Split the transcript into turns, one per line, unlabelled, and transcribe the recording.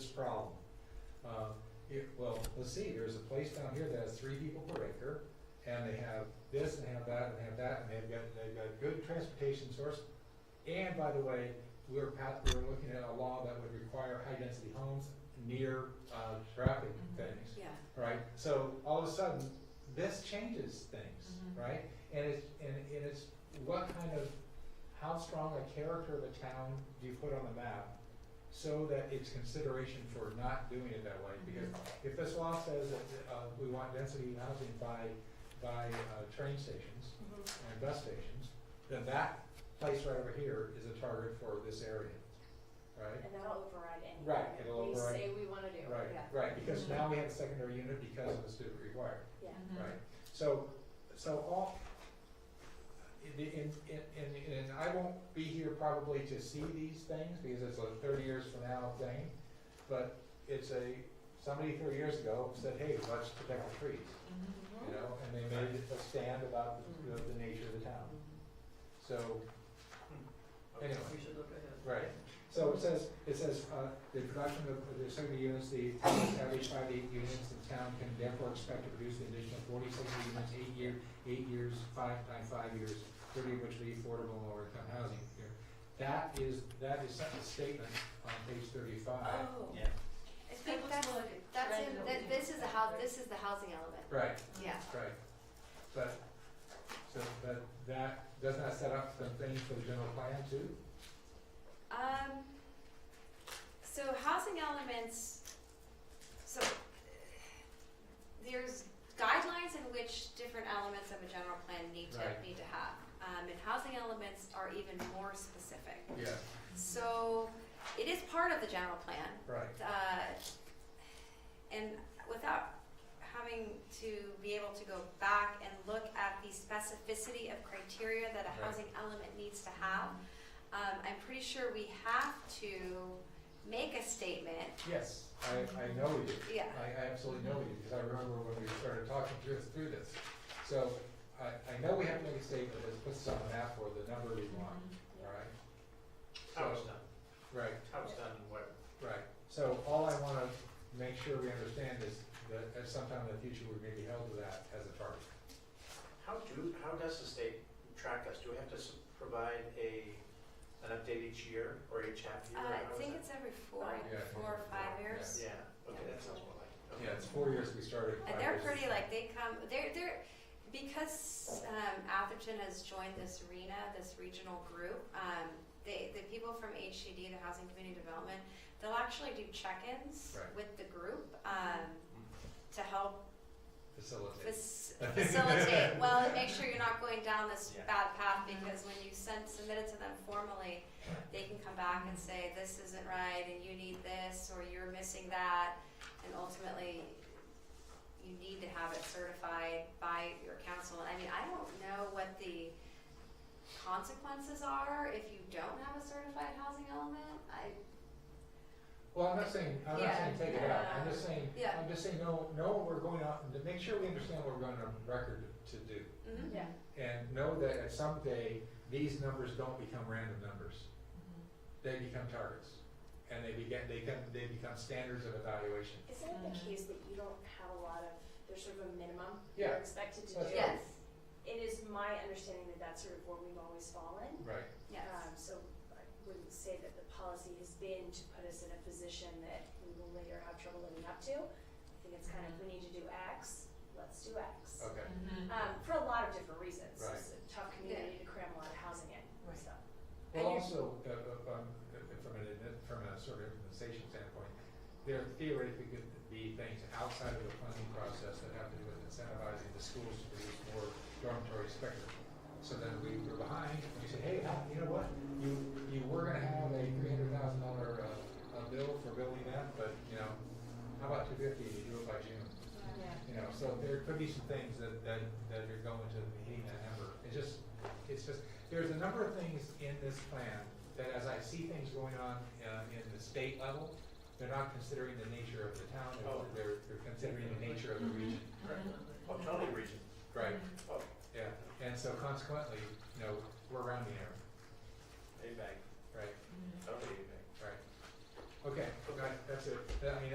problem. Uh, it, well, let's see, there's a place down here that has three people per acre, and they have this, and they have that, and they have that, and they've got, they've got good transportation source. And by the way, we're pa we're looking at a law that would require high-density homes near, uh, traffic
Mhm.
things
Yeah,
right? So all of a sudden, this changes things,
Mhm.
right? And it's, and, and it's what kind of, how strong a character of a town do you put on the map? So that it's consideration for not doing it that way,
Mm-hmm.
because if this law says that, uh, we want density housing by, by, uh, train stations
Mhm.
and bus stations, then that place right over here is a target for this area, right?
and that'll override anything
Right,
that
it'll
we
override-
say we wanna do,
Right,
yeah, Mm-hmm.
right, because now we have a secondary unit because of the student required.
yeah.
Mm.
Right, so, so all, and, and, and, and I won't be here probably to see these things, because it's a thirty years from now thing, but it's a, somebody thirty years ago said, hey, let's protect the trees,
Mm.
Mm-hmm.
you know, and they made a stand about the, the nature of the town, so,
Hmm.
Anyway.
We should look ahead.
Right. So it says, it says, uh, the production of, the assembly units, the town established by the units, the town can therefore expect to produce an additional forty-six units, eight year, eight years, five by five years, thirty of which will be affordable and lower income housing here. That is, that is such a statement on page thirty-five.
Oh.
Yeah.
I think that's, that's in, that, this is the house, this is the housing element,
Right,
Mm-hmm.
yeah.
right. But, so, but that, does not set up some things for the general plan too?
Um, so housing elements, so uh, there's guidelines in which different elements of a general plan need to,
Right.
need to have. Um, and housing elements are even more specific.
Yeah,
Mm-hmm.
So it is part of the general plan,
right,
uh, and without having to be able to go back and look at the specificity of criteria that
Right.
a housing element needs to have, um, I'm pretty sure we have to make a statement,
yes, I, I know we do.
yeah.
I, I absolutely know you, because I remember when we started talking through, through this. So, I, I know we have to make a statement that puts us on the map for the number we want, alright?
How it's
So-
done,
Right,
how it's done and where.
right. So all I wanna make sure we understand is that at some time in the future, we may be held to that as a target.
How do, how does the state track us? Do we have to s- provide a, an update each year or each half year?
Uh,
or how
I
is
think
that?
it's every four,
Yeah.
four or five years.
Yeah, okay, that sounds more like. it.
Yeah, it's four years we started.
And
five
they're
years.
pretty, like, they come, they're, they're, because, um, Atherton has joined this arena, this regional group, um, they, the people from HCD, the Housing Community Development, they'll actually do check-ins
Right.
with the group, um, to help
Facilitate.
fac- facilitate, well, and make sure you're not going down this
Yeah.
bad path, because when you send, submit it to them formally, they can come back and say, this isn't right, and you need this, or you're missing that, and ultimately, you need to have it certified by your council. I mean, I don't know what the consequences are if you don't have a certified housing element, I,
Well, I'm not saying, I'm not
Yeah,
saying take it out, I'm
yeah.
just saying,
Yeah.
I'm just saying, know, know what we're going out, and to make sure we understand what we're going on record to do.
mhm.
Yeah.
And know that at some day, these numbers don't become random numbers. They become targets. And they begin, they become, they become standards of evaluation.
Isn't it the case that you don't have a lot of, there's sort of a minimum
Yeah.
you're expected to do?
That's
yes,
It is my understanding that that's sort of where we've always fallen.
Right.
yes.
Um, so I wouldn't say that the policy has been to put us in a position that we will later have trouble living up to. I think it's kind of, we need to do X, let's do X.
Okay,
Um, for a lot of different reasons.
Right.
It's a tough community to cram a lot of housing in,
Right.
so.
well,
And you're-
also, uh, uh, um, uh, from an, admi- from a sort of implementation standpoint, there theoretically could be things outside of the planning process that have to do with incentivizing the schools to produce more dormitory spectrum. So then we were behind, and we said, hey, how- you know what, you, you were gonna have a three hundred thousand dollar, uh, uh, bill for building that, but, you know, how about two fifty, you do it by June?
Yeah.
You know, so there could be some things that, that, that are going to hitting that number. It just, it's just, there's a number of things in this plan that as I see things going on, uh, in the state level, they're not considering the nature of the town,
Oh.
they're, they're- they're considering the nature of the region.
Oh, totally region.
Right.
Oh,
Yeah, and so consequently, you know, we're around the error,
A bag,
right,
totally A bag.
right. Okay, right, that's it, I mean,